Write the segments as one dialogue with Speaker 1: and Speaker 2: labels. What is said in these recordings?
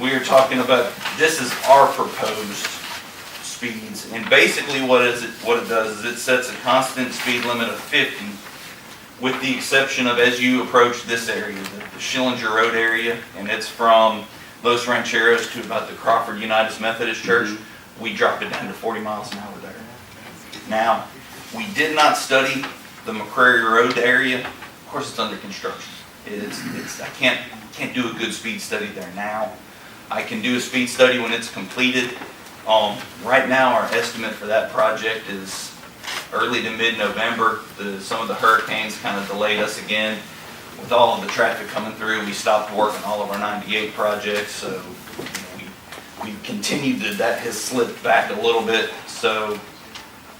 Speaker 1: we are talking about, this is our proposed speeds. And basically what is it, what it does is it sets a constant speed limit of fifty with the exception of as you approach this area, the the Schillinger Road area, and it's from Los Rancheros to about the Crawford United Methodist Church, we dropped it down to forty miles an hour there. Now, we did not study the McCrary Road area. Of course, it's under construction. It's, it's, I can't, can't do a good speed study there now. I can do a speed study when it's completed. Um, right now, our estimate for that project is early to mid-November. The, some of the hurricanes kind of delayed us again. With all of the traffic coming through, we stopped work on all of our ninety-eight projects, so you know, we, we continued to, that has slipped back a little bit. So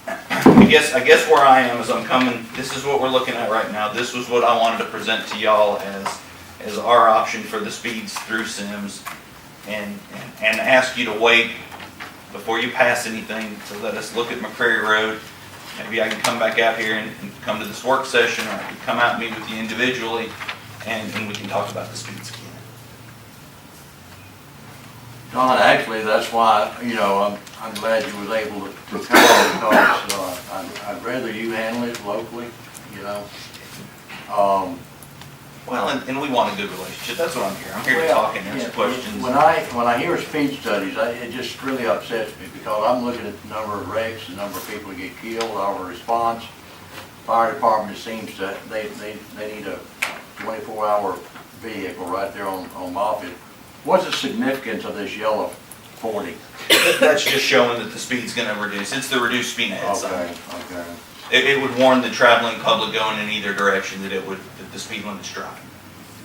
Speaker 1: I guess, I guess where I am is I'm coming, this is what we're looking at right now. This was what I wanted to present to y'all as, as our option for the speeds through Sims. And, and- and ask you to wait before you pass anything to let us look at McCrary Road. Maybe I can come back out here and, and come to this work session, or I can come out and meet with you individually, and, and we can talk about the speeds again.
Speaker 2: Don, actually, that's why, you know, I'm, I'm glad you was able to to come because, uh, I'd, I'd rather you handle it locally, you know? Um,
Speaker 1: Well, and, and we want a good relationship, that's what I'm here, I'm here to
Speaker 2: well,
Speaker 1: talk and answer
Speaker 2: yeah,
Speaker 1: questions.
Speaker 2: When I, when I hear speed studies, I, it just really upsets me because I'm looking at the number of wrecks, the number of people who get killed, our response. Fire department seems to, they, they, they need a twenty-four hour vehicle right there on, on Moffett. What's the significance of this yellow forty?
Speaker 1: That- That's just showing that the speed's gonna reduce, it's the reduced speed ahead sign.
Speaker 2: Okay, okay.
Speaker 1: It, it would warn the traveling public going in either direction that it would, that the speed limit's dropping.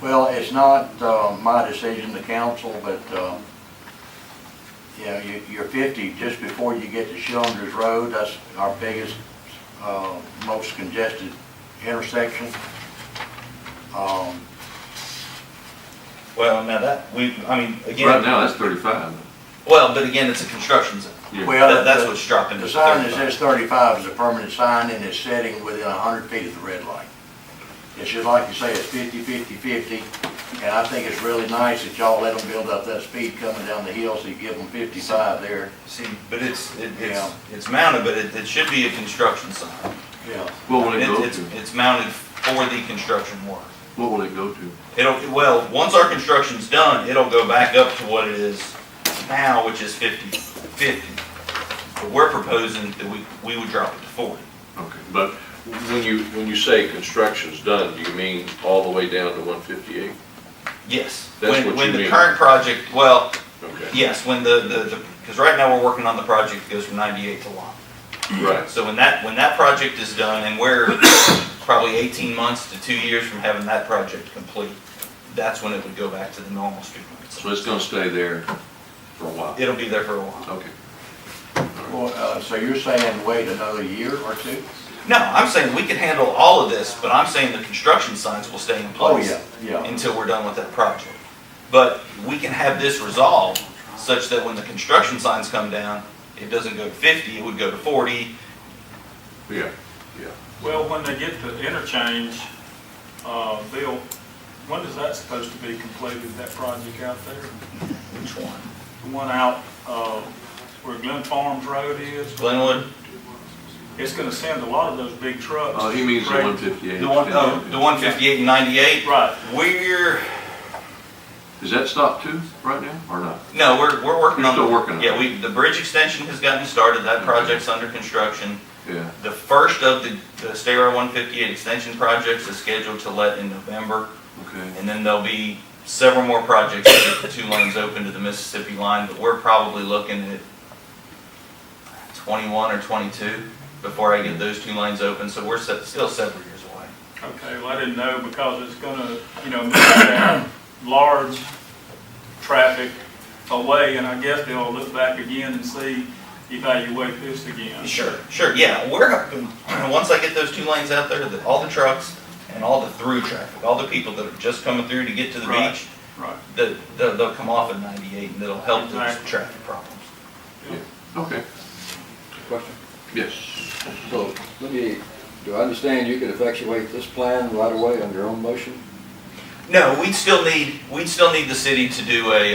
Speaker 2: Well, it's not uh, my decision, the council, but, um, you know, you- you're 50 just before you get to Schillinger's Road. That's our biggest, uh, most congested intersection. Um,
Speaker 1: Well, now that, we, I mean,
Speaker 3: Right
Speaker 1: again,
Speaker 3: now, that's thirty-five.
Speaker 1: well, but again, it's a construction zone.
Speaker 3: Yeah.
Speaker 2: Well,
Speaker 1: That, that's
Speaker 2: the-
Speaker 1: what's dropping. to
Speaker 2: The sign that
Speaker 1: 35.
Speaker 2: says 35 is a permanent sign and it's setting within 100 feet of the red light. It's just like you say, it's 50, 50, 50, and I think it's really nice that y'all let them build up that speed coming down the hill, so you give them 55 there.
Speaker 1: See, but it's, it-
Speaker 2: Yeah.
Speaker 1: it's, it's mounted, but it, it should be a construction sign.
Speaker 2: Yeah.
Speaker 3: What will it
Speaker 1: It-
Speaker 3: go
Speaker 1: It's,
Speaker 3: to?
Speaker 1: it's mounted for the construction work.
Speaker 3: What will it go to?
Speaker 1: It'll, well, once our construction's done, it'll go back up to what it is now, which is 50 50. But we're proposing that we, we would drop it to forty.
Speaker 3: Okay,
Speaker 4: But when you, when you say construction's done, do you mean all the way down to one fifty-eight?
Speaker 1: Yes.
Speaker 4: That's
Speaker 1: When-
Speaker 4: what you
Speaker 1: When the
Speaker 4: mean.
Speaker 1: current project, well,
Speaker 4: Okay,
Speaker 1: yes, when the, the, because right now we're working on the project that goes from ninety-eight to Lon.
Speaker 4: right,
Speaker 1: So when that, when that project is done, and we're probably 18 months to two years from having that project complete, that's when it would go back to the normal street
Speaker 4: so
Speaker 1: lights.
Speaker 4: it's gonna stay there for a while,
Speaker 1: It'll be there for a while.
Speaker 4: okay.
Speaker 2: Well, uh, so you're saying wait another year or two?
Speaker 1: No, I'm saying we can handle all of this, but I'm saying the construction signs will stay in place
Speaker 2: Oh, yeah.
Speaker 1: until we're done with that project. But we can have this resolved such that when the construction signs come down, it doesn't go to 50, it would go to 40.
Speaker 4: Yeah,
Speaker 5: Well, when they get the interchange, uh, Bill, when is that supposed to be completed, that project out there?
Speaker 1: Which one?
Speaker 5: The one out, uh, where Glen Farms Road is?
Speaker 1: Glenwood?
Speaker 5: It's gonna send a lot of those big trucks.
Speaker 3: oh, he means the
Speaker 5: Right.
Speaker 3: one fifty-eight.
Speaker 1: The one, oh, the 158 and 98?
Speaker 5: Right.
Speaker 1: We're,
Speaker 3: Is that stop two right now, or not?
Speaker 1: No, we're, we're working
Speaker 3: You're
Speaker 1: on.
Speaker 3: still working on it.
Speaker 1: Yeah, we, the bridge extension has gotten started, that project's under construction.
Speaker 3: Yeah,
Speaker 1: The first of the, the State Road one fifty-eight extension projects is scheduled to let in November.
Speaker 3: okay.
Speaker 1: And then there'll be several more projects to get the two lanes open to the Mississippi line, but we're probably looking at twenty-one or twenty-two before I get those two lanes open, so we're se- still several years away.
Speaker 5: Okay, well, I didn't know because it's gonna, you know, move that large traffic away, and I guess they'll look back again and see, evaluate this again.
Speaker 1: Sure, sure, yeah, we're, once I get those two lanes out there, that all the trucks and all the through traffic, all the people that are just coming through to get to the
Speaker 5: Right.
Speaker 1: beach,
Speaker 5: Right.
Speaker 1: the, the, they'll come off at ninety-eight and it'll help those
Speaker 5: Exactly.
Speaker 1: traffic problems.
Speaker 3: Okay,
Speaker 6: Question.
Speaker 3: yes.
Speaker 6: So, let me, do I understand you could effectuate this plan right away on your own motion?
Speaker 1: No, we'd still need, we'd still need the city to do a,